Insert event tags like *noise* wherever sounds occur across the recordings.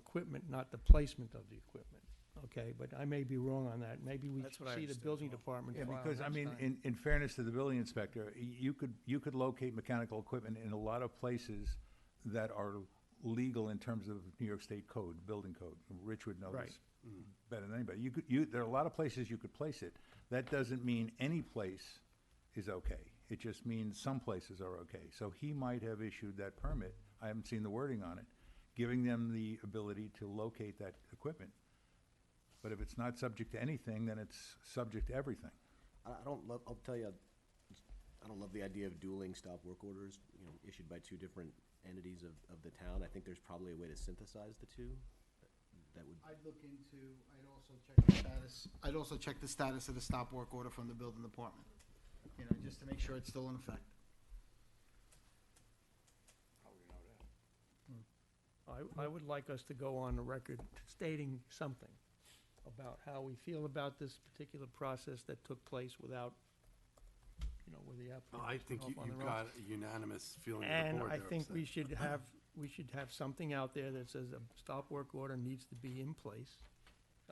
equipment, not the placement of the equipment, okay? But I may be wrong on that, maybe we That's what I see the understood as building well. department Yeah, file because, I next mean, time. in, in fairness to the building inspector, y- you could, you could locate mechanical equipment in a lot of places that are legal in terms of New York State code, building code. Rich would know Right. this Mm-hmm. better than anybody. You could, you, there are a lot of places you could place it. That doesn't mean any place is okay. It just means some places are okay. So he might have issued that permit, I haven't seen the wording on it, giving them the ability to locate that equipment. But if it's not subject to anything, then it's subject to everything. I, I don't love, I'll tell you, I don't love the idea of dueling stop work orders, you know, issued by two different entities of, of the town. I think there's probably a way to synthesize the two. That would, I'd look into, I'd also check the status, I'd also check the status of the stop work order from the building department, you know, just to make sure it's still in effect. I, I would like us to go on the record stating something about how we feel about this particular process that took place without, you know, with the Well, applicant. Oh, I think off you- on you've their own. got a unanimous feeling of the And board I there, think so- we *clears throat* should have, we should have something out there that says a stop work order needs to be in place.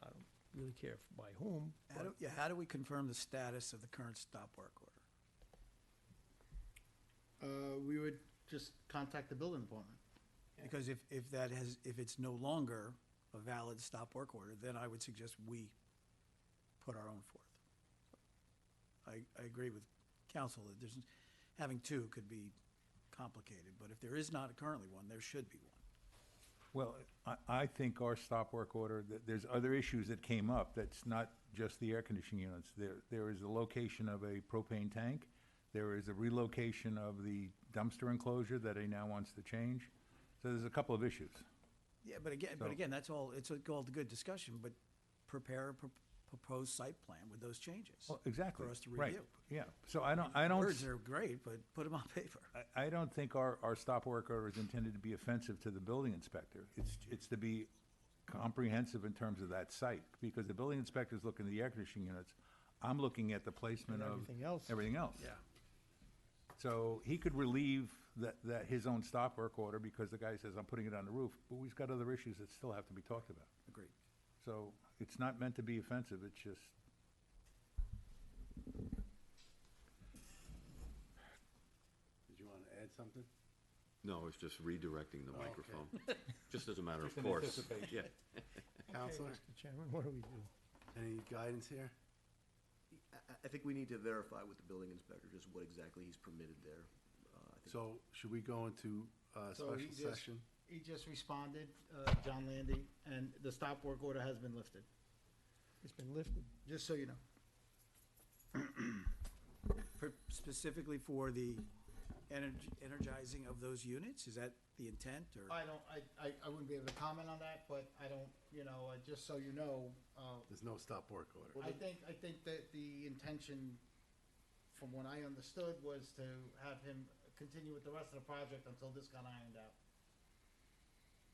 I don't really care by whom, How do, but yeah, how do we confirm the status of the current stop work order? Uh, we would just contact the building department. Because if, if that has, if it's no longer a valid stop work order, then I would suggest we put our own forth. I, I agree with council that there's, having two could be complicated, but if there is not currently one, there should be one. Well, I, I think our stop work order, th there's other issues that came up, that's not just the air conditioning units. There, there is the location of a propane tank, there is a relocation of the dumpster enclosure that he now wants to change. So there's a couple of issues. Yeah, but again, but So- again, that's all, it's all good discussion, but prepare a pro- proposed site plan with those changes. Well, exactly, For us to right, review. yeah. So I don't, I don't, Words are great, but put them on paper. I- I don't think our, our stop work order is intended to be offensive to the building inspector. It's, it's to be comprehensive in terms of that site, because the building inspector's looking at the air conditioning units. I'm looking at the placement And of. everything else. Everything else. Yeah. So he could relieve that, that, his own stop work order, because the guy says, I'm putting it on the roof, but we've got other issues that still have to be talked about. Agreed. So it's not meant to be offensive, it's just. Did you want to add something? No, it's just redirecting the microphone. Just as a matter of an course. anticipation. Yeah. Counselor, Mr. Chairman, what do we do? any guidance here? I, I- I think we need to verify with the building inspector just what exactly he's permitted there. Uh, I think So should we go into a So special he just- session? He just responded, uh, John Landy, and the stop work order has been lifted, It's been lifted. just so you know. per- specifically for the energ- energizing of those units? Is that the intent or? I don't, I, I, I wouldn't be able to comment on that, but I don't, you know, uh, just so you know, uh, There's no stop work order. I think, I think that the intention, from what I understood, was to have him continue with the rest of the project until this got ironed out.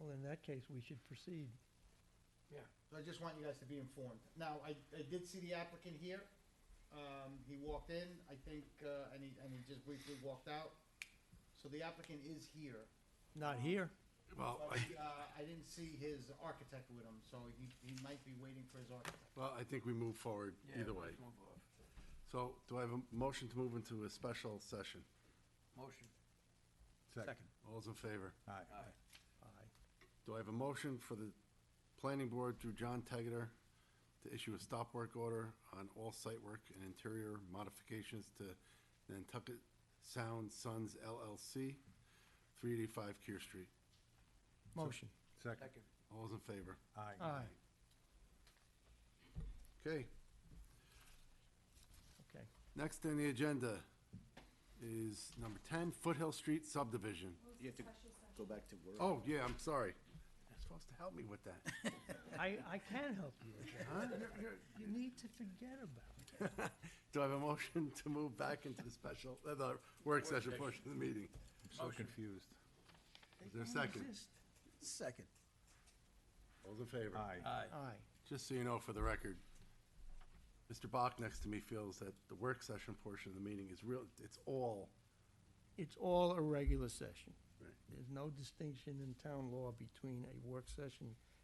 Well, in that case, we should proceed. So I just want you guys to be informed. Now, I, I did see the applicant here. Um, he walked in, I think, uh, and he, and he just briefly walked out. So the applicant is here. Not here. Well, But, I, uh, I didn't see his architect with him, so he, he might be waiting for his architect. well, I think we move forward either way. So do I have a motion to move into a special session? Motion. Second. All's in favor? Aye. Do I have a motion for the planning board through John Tegater to issue a stop work order on all site work and interior modifications to Nantucket Sound Sons LLC, three eighty-five Kear Street? Motion. Second, Second. All All's in favor? aye. Aye. Okay, Okay. next on the agenda is number ten, Foothill Street subdivision. You have to go back to work. Oh, yeah, I'm sorry. You're supposed to help me with that. I, I can help you. You're- you're- You need to forget about it. Do I have a motion to move back into the special, uh, the work session portion of the meeting? I'm so confused. Is there a Don't second? exist. Second. All's in favor? Aye. Aye. Just so you know, for the record, Mr. Bach next to me feels that the work session portion of the meeting is real, it's all, It's all a regular session. Right. There's no distinction in town law between a work session